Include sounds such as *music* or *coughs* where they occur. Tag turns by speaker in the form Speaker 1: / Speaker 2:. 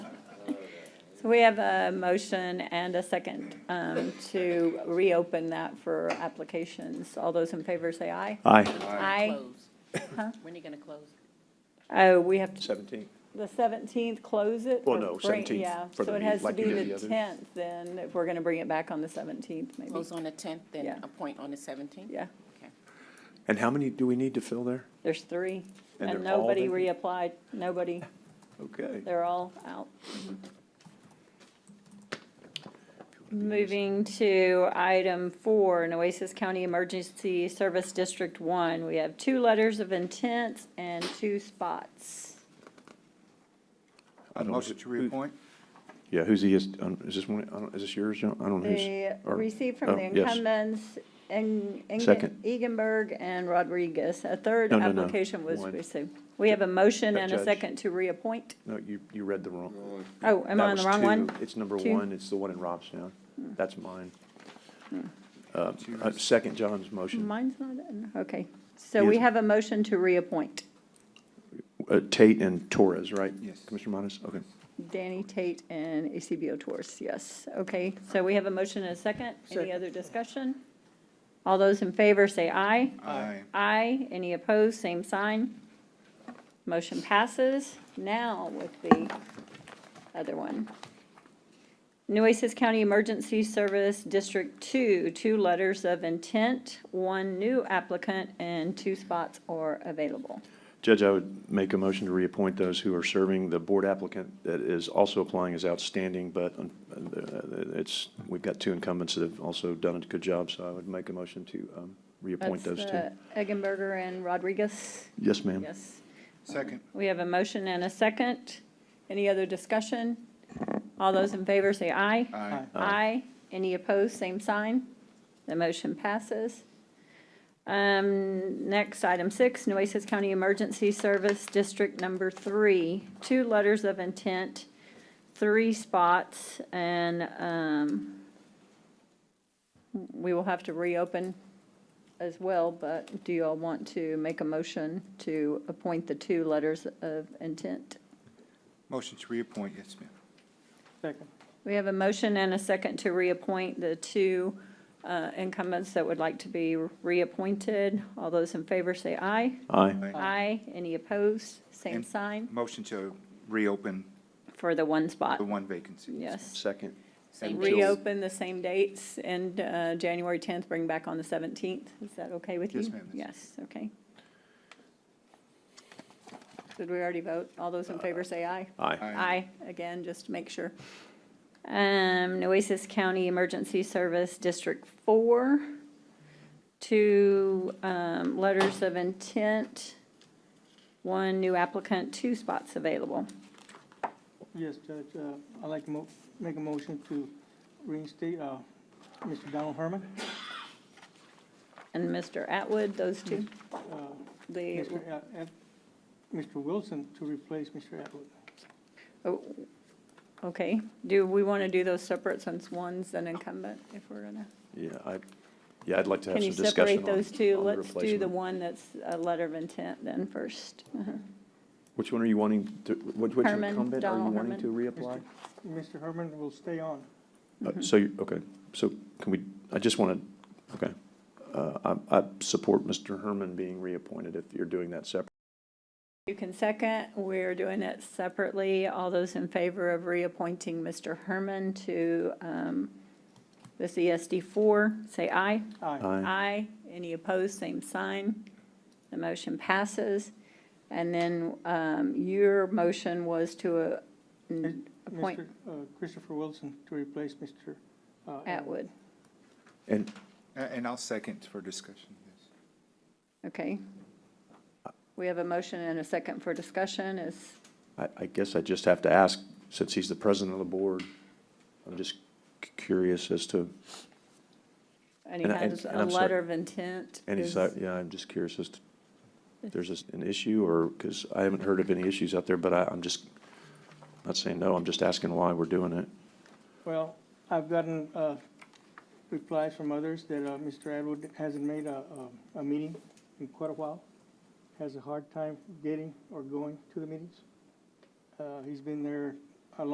Speaker 1: So we have a motion and a second um, to reopen that for applications. All those in favor say aye.
Speaker 2: Aye.
Speaker 1: Aye. *coughs* Huh?
Speaker 3: Close. When are you gonna close?
Speaker 1: Oh, we have, to
Speaker 2: Seventeen.
Speaker 1: the 17th, close it?
Speaker 2: Well,
Speaker 1: or
Speaker 2: no,
Speaker 1: bring-
Speaker 2: 17th
Speaker 1: Yeah,
Speaker 2: for
Speaker 1: so
Speaker 2: the
Speaker 1: it
Speaker 2: meet-
Speaker 1: has to
Speaker 2: like you
Speaker 1: be
Speaker 2: did the
Speaker 1: the
Speaker 2: others.
Speaker 1: 10th then, if we're going to bring it back on the 17th, maybe.
Speaker 3: Close on the tenth,
Speaker 1: Yeah.
Speaker 3: then appoint on the seventeenth?
Speaker 1: Yeah,
Speaker 2: And how many do we need to fill there?
Speaker 1: there's three.
Speaker 2: And
Speaker 1: And
Speaker 2: they're all
Speaker 1: nobody
Speaker 2: vacant?
Speaker 1: reapplied, nobody,
Speaker 2: Okay.
Speaker 1: they're all out.
Speaker 2: Mm-hmm.
Speaker 1: Moving to item four, Nueces County Emergency Service District One. We have two letters of intent and two spots.
Speaker 2: I don't-
Speaker 4: Motion to
Speaker 2: who-
Speaker 4: reappoint?
Speaker 2: Yeah, who's the, is um, is this one, I don't- is this yours, John? I don't know
Speaker 1: The,
Speaker 2: who's. or-
Speaker 1: received
Speaker 2: oh,
Speaker 1: from the
Speaker 2: yes.
Speaker 1: incumbents, Eng- Engen-
Speaker 2: Second.
Speaker 1: Eganberg and Rodriguez. A third
Speaker 2: No, no, no.
Speaker 1: application was
Speaker 2: One.
Speaker 1: received. We have a motion
Speaker 2: That
Speaker 1: and a
Speaker 2: judge.
Speaker 1: second to reappoint.
Speaker 2: No, you, you read the wrong.
Speaker 1: Oh, am
Speaker 2: that
Speaker 1: I on the
Speaker 2: was
Speaker 1: wrong
Speaker 2: two.
Speaker 1: one?
Speaker 2: It's number
Speaker 1: Two? Hmm.
Speaker 2: one, it's the one in Robstown. That's mine. Uh, uh, Second John's motion.
Speaker 1: Mine's not, in. okay. So we
Speaker 2: Yes.
Speaker 1: have a motion to reappoint
Speaker 2: Uh, Tate and Torres, right?
Speaker 4: Yes.
Speaker 2: Commissioner Monas, okay.
Speaker 1: Danny Tate and ACBO Tours, yes. Okay, so we have a motion and a second. Any
Speaker 4: Second.
Speaker 1: other discussion? All those in favor say aye.
Speaker 4: Aye.
Speaker 1: Aye. Any opposed, same sign. Motion passes. Now with the other one. Nueces County Emergency Service District Two, two letters of intent, one new applicant, and two spots are available.
Speaker 2: Judge, I would make a motion to reappoint those who are serving. The board applicant that is also applying is outstanding, but uh, it's, we've got two incumbents that have also done a good job, so I would make a motion to um, reappoint
Speaker 1: That's
Speaker 2: those two.
Speaker 1: the Eggenberger and Rodriguez.
Speaker 2: Yes, ma'am.
Speaker 1: Yes.
Speaker 4: Second.
Speaker 1: We have a motion and a second. Any other discussion? All those in favor say aye.
Speaker 4: Aye.
Speaker 1: Aye. Any opposed, same sign. The motion passes. Um, next, item six, Nueces County Emergency Service District Number Three, two letters of intent, three spots, and, um, we will have to reopen as well, but do you all want to make a motion to appoint the two letters of intent?
Speaker 4: Motion to reappoint, yes, ma'am.
Speaker 1: We have a motion and a second to reappoint the two uh, incumbents that would like to be reappointed. All those in favor say aye.
Speaker 2: Aye.
Speaker 1: Aye. Any opposed? Same
Speaker 4: And-
Speaker 1: sign
Speaker 4: Motion to reopen
Speaker 1: for the one spot.
Speaker 4: the one vacancy.
Speaker 1: Yes.
Speaker 2: Second.
Speaker 3: Same
Speaker 2: Until-
Speaker 3: date.
Speaker 1: Reopen the same dates and uh, January 10th, bring back on the 17th. Is that okay with you?
Speaker 4: Yes, ma'am.
Speaker 1: Yes, okay. Did we already vote? All those
Speaker 4: Uh,
Speaker 1: in favor say aye.
Speaker 2: Aye.
Speaker 1: Aye, again, just to make sure. Um, Nueces County Emergency Service District Four, two, um, letters of intent, one new applicant, two spots available.
Speaker 5: Yes, Judge, uh, I'd like to mo- make a motion to reinstate uh, Mr. Donald Herman,
Speaker 1: And Mr. Atwood, those two,
Speaker 2: Mm-hmm.
Speaker 5: uh,
Speaker 1: the,
Speaker 5: Mr. At- At- Mr. Wilson to replace Mr. Atwood.
Speaker 1: oh, okay. Do we want to do those separate since one's an incumbent, if we're gonna?
Speaker 2: Yeah, I, yeah, I'd like to have
Speaker 1: Can you
Speaker 2: some discussion on
Speaker 1: separate those two?
Speaker 2: on the
Speaker 1: Let's do the
Speaker 2: replacement.
Speaker 1: one that's a letter of intent then first. Uh-huh.
Speaker 2: Which one are you wanting, to- which which
Speaker 1: Herman,
Speaker 2: incumbent are you
Speaker 1: Donald
Speaker 2: wanting to reapply?
Speaker 5: Mr. Mr. Herman will stay on.
Speaker 2: Uh, So, you- okay, so can we, I just want to, okay. Uh, I, I support Mr. Herman being reappointed if you're doing that separate.
Speaker 1: You can second. We're doing it separately. All those in favor of reappointing Mr. Herman to um, the CSD four, say aye.
Speaker 5: Aye.
Speaker 2: Aye.
Speaker 1: Aye. Any opposed, same sign. The motion passes. And then um, your motion was to uh, appoint
Speaker 5: Mr. uh, Christopher Wilson to replace Mr. uh,
Speaker 1: Atwood.
Speaker 2: And
Speaker 4: A- And I'll second for discussion, yes.
Speaker 1: Okay. We have a motion and a second for discussion. Is,
Speaker 2: I, I guess I just have to ask, since he's the president of the board, I'm just c- curious as to,
Speaker 1: and he
Speaker 2: And I-
Speaker 1: has
Speaker 2: and
Speaker 1: a
Speaker 2: I'm sorry.
Speaker 1: letter of intent.
Speaker 2: any
Speaker 1: Is-
Speaker 2: side, yeah, I'm just curious as to, if there's this- an issue or, because I haven't heard of any issues out there, but I, I'm just, not saying no, I'm just asking why we're doing it.
Speaker 5: Well, I've gotten uh, replies from others that uh, Mr. Atwood hasn't made a, a- a meeting in quite a while, has a hard time getting or going to the meetings. Uh, He's been there